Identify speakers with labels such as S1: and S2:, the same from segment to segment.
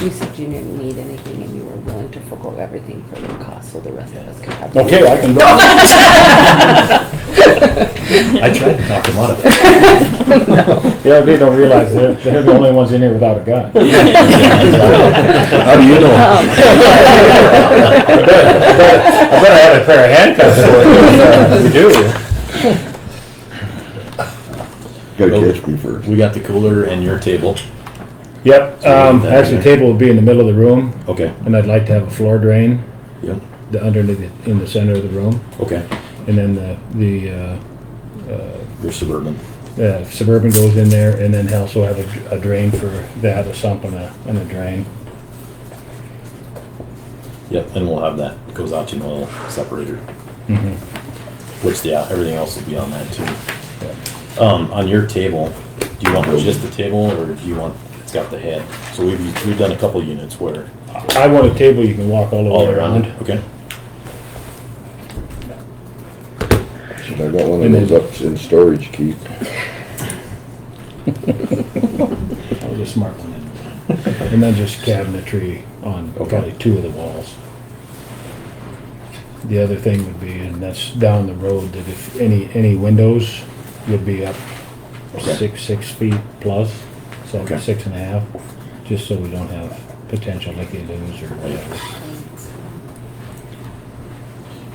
S1: You said you didn't need anything and you were willing to forego everything for the cost, so the rest of us could have.
S2: Okay, I can go.
S3: I tried to talk him out of it.
S2: Yeah, they don't realize they're, they're the only ones in here without a gun.
S3: How do you
S2: I bet- I bet- I bet I had a pair of handcuffs for it. You do.
S4: Gotta catch me first.
S3: We got the cooler and your table.
S2: Yep,
S3: So
S2: um,
S3: that in
S2: actually, the
S3: there.
S2: table would be in the middle of the room,
S3: Okay,
S2: and I'd like to have a floor drain
S3: yep,
S2: the underneath, it- in the center of the room,
S3: okay.
S2: and then the, the, uh,
S3: Your Suburban.
S2: uh, Suburban goes in there, and then also have a, a drain for that, a sump and a, and a drain.
S3: Yep, and we'll have that Kozachi oil separator,
S2: Mhm.
S3: which, yeah, everything else will be on that too. Um, on your table, do you want just the table or do you want, it's got the head? So we've, we've done a couple units where
S2: I want a table you can walk all the
S3: all
S2: way
S3: around,
S2: around.
S3: okay?
S4: Should I got one of those up in storage, Keith.
S2: That was a smart one. And then just cabinetry on
S3: Okay.
S2: probably two of the walls. The other thing would be, and that's down the road, that if any, any windows would be up
S3: Okay.
S2: six, six feet plus, so
S3: Okay.
S2: six and a half, just so we don't have potential leaky-loos or whatever.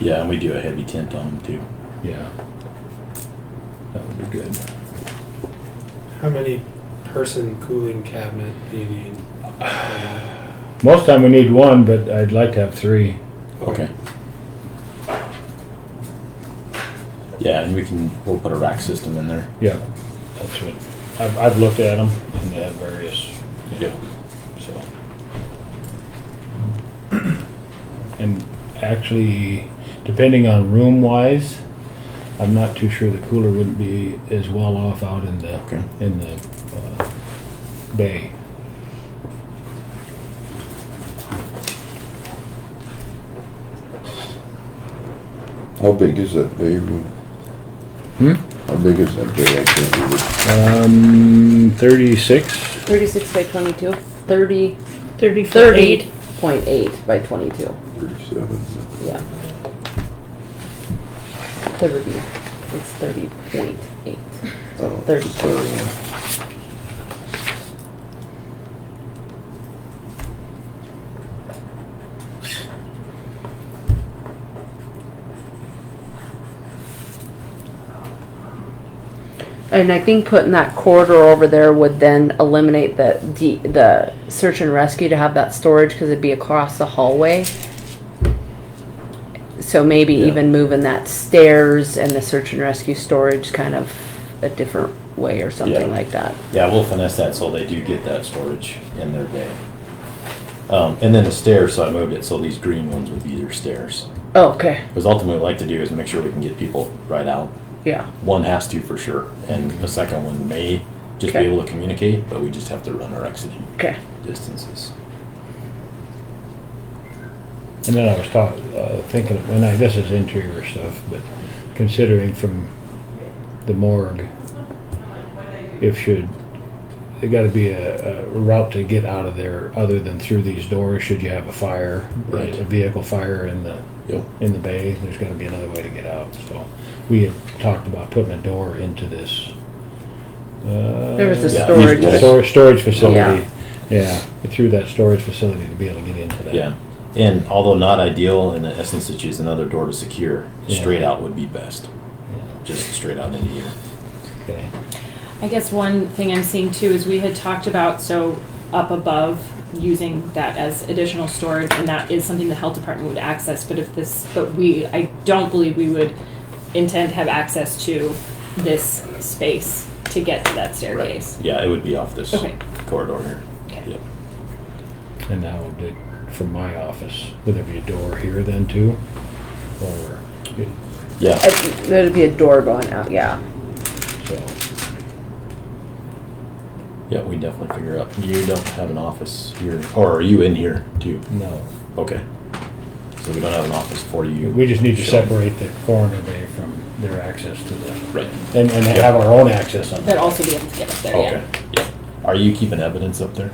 S3: Yeah, and we do a heavy tint on them too.
S2: Yeah. That would be good.
S5: How many person cooling cabinet do you need?
S2: Most time we need one, but I'd like to have three.
S3: Okay. Yeah, and we can, we'll put a rack system in there.
S2: Yeah, that's what, I've, I've looked at them and they have various,
S3: Yep.
S2: so. And actually, depending on room wise, I'm not too sure the cooler wouldn't be as well off out in the,
S3: Okay.
S2: in the, uh, bay.
S4: How big is that bay room?
S2: Hmm?
S4: How big is that bay? I can't read it.
S2: Um, thirty-six?
S1: Thirty-six by twenty-two, thirty,
S6: Thirty foot
S1: thirty
S6: eight.
S1: point eight by twenty-two,
S4: Thirty-seven.
S1: yeah. Thirty, it's thirty point eight.
S4: Oh,
S1: Thirty.
S4: sorry.
S1: And I think putting that corridor over there would then eliminate the, D- the search and rescue to have that storage, cause it'd be across the hallway. So maybe
S3: Yeah.
S1: even moving that stairs and the search and rescue storage kind of a different way or something
S3: Yeah.
S1: like that.
S3: Yeah, we'll finesse that so they do get that storage in their bay. Um, and then the stairs, so I moved it, so these green ones would be their stairs.
S1: Oh, Okay,
S3: Because ultimately, what we like to do is make sure we can get people right out.
S1: yeah,
S3: One has to for sure, and the second one may just be
S1: Okay.
S3: able to communicate, but we just have to run our exiting
S1: okay.
S3: distances.
S2: And then I was taught, uh, thinking, and I, this is interior stuff, but considering from the morgue, if should, there gotta be a, a route to get out of there other than through these doors, should you have a fire,
S3: Right.
S2: a vehicle fire in the,
S3: Yep.
S2: in the bay, there's gotta be another way to get out, so. We had talked about putting a door into this. uh,
S1: There was a
S3: Yeah.
S1: storage,
S3: Yeah.
S2: Stor- storage
S1: Yeah.
S2: facility, yeah, through that storage facility to be able to get into that.
S3: Yeah, and although not ideal, in the essence, it's just another door to secure.
S2: Yeah.
S3: Straight out would be best,
S2: Yeah,
S3: just straight out into here.
S2: Okay.
S6: I guess one thing I'm seeing too is we had talked about, so up above, using that as additional storage, and that is something the health department would access, but if this, but we, I don't believe we would intend to have access to this space to get to that staircase.
S3: Yeah, it would be off this
S6: Okay.
S3: corridor here.
S6: Okay.
S3: Yep.
S2: And that would be from my office. Would there be a door here then too? Or,
S3: Yeah,
S1: I- there'd be a door going out, yeah.
S2: so,
S3: yeah, we definitely figure out. You don't have an office here, or are you in here too?
S2: no.
S3: Okay. So we don't have an office for you.
S2: We just need to
S3: Sure.
S2: separate the coroner bay from their access to the,
S3: Right.
S2: and, and have our own access on
S6: But
S2: that.
S6: also be able to get up there, yeah.
S3: Okay, yeah. Are you keeping evidence up there?